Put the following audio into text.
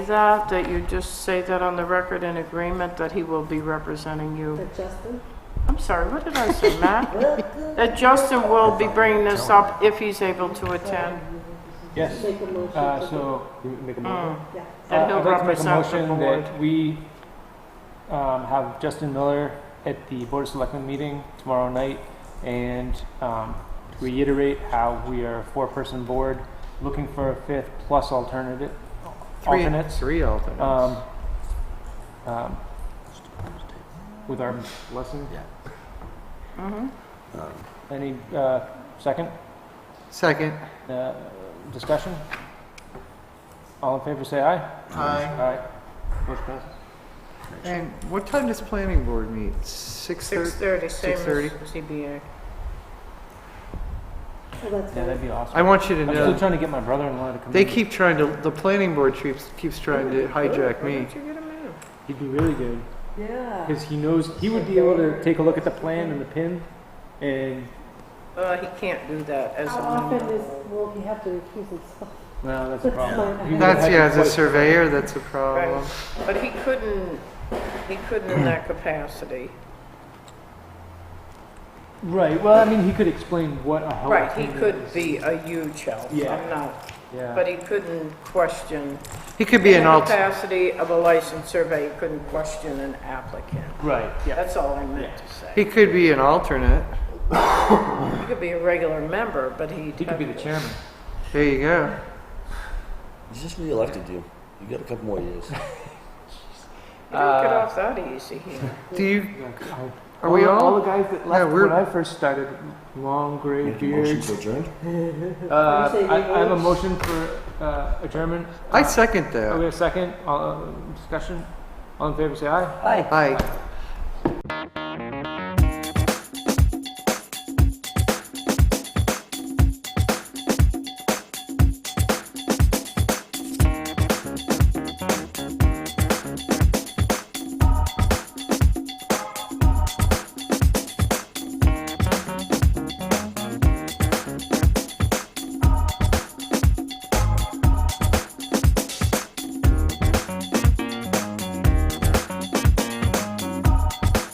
that, that you just say that on the record in agreement that he will be representing you. That Justin I'm sorry, what did I say, Matt? will good That Justin will be bringing this up if he's able to attend. Yes, make a motion. uh, to- so. you Make a motion? Mm, Yeah. That Uh, he'll I'd like to make a represent the motion board. that we um, have Justin Miller at the Board of Selectmen meeting tomorrow night and um, reiterate how we are a four-person board looking for a fifth plus alternative, Three- alternates. Three alternates. um, um, With our blessing. Um, Yeah. mhm. Any uh, second Second. uh, discussion? All in favor, say aye. Aye. Motion passes. And what time does planning board meet? Six thirty? 6:30, same as 6:30. ZBA. Oh, that's Yeah, right. that'd be awesome. I want you to I'm still know, trying to get my brother-in-law to come. they in. keep trying to, the planning board keeps, keeps trying to hijack Why me. don't you get him in? He'd be really good Yeah. because he knows he would be able to take a look at the plan and the pin, and Uh, he can't do that as a How member. often is, will he have to recuse himself? well, that's a problem. He would That's, have yeah, to as a quite- surveyor, that's a problem. But he couldn't, he couldn't in that capacity. Right. Well, I mean, he could explain what a help. Right, he team could is. be a huge help. Yeah. I'm not, Yeah. but he couldn't question. He could be in an the alt, capacity of a licensed surveyor, you couldn't question an applicant. right. Yeah. That's all I meant to say. he could be an alternate. He could be a regular member, but he'd He could be the have- chairman. There you go. He's just re-elected you. You got a couple more years. You don't get Uh, off that easy here. Do you, are All we the- oh. all the all? guys that Yeah, left we're- when I first started? Long gray Make a motion beards. to adjourn? Uh, You say I, I have a beards? motion for uh, adjournment. I Uh, second Are we that. a second? All, uh, discussion. All in favor, say aye. Aye.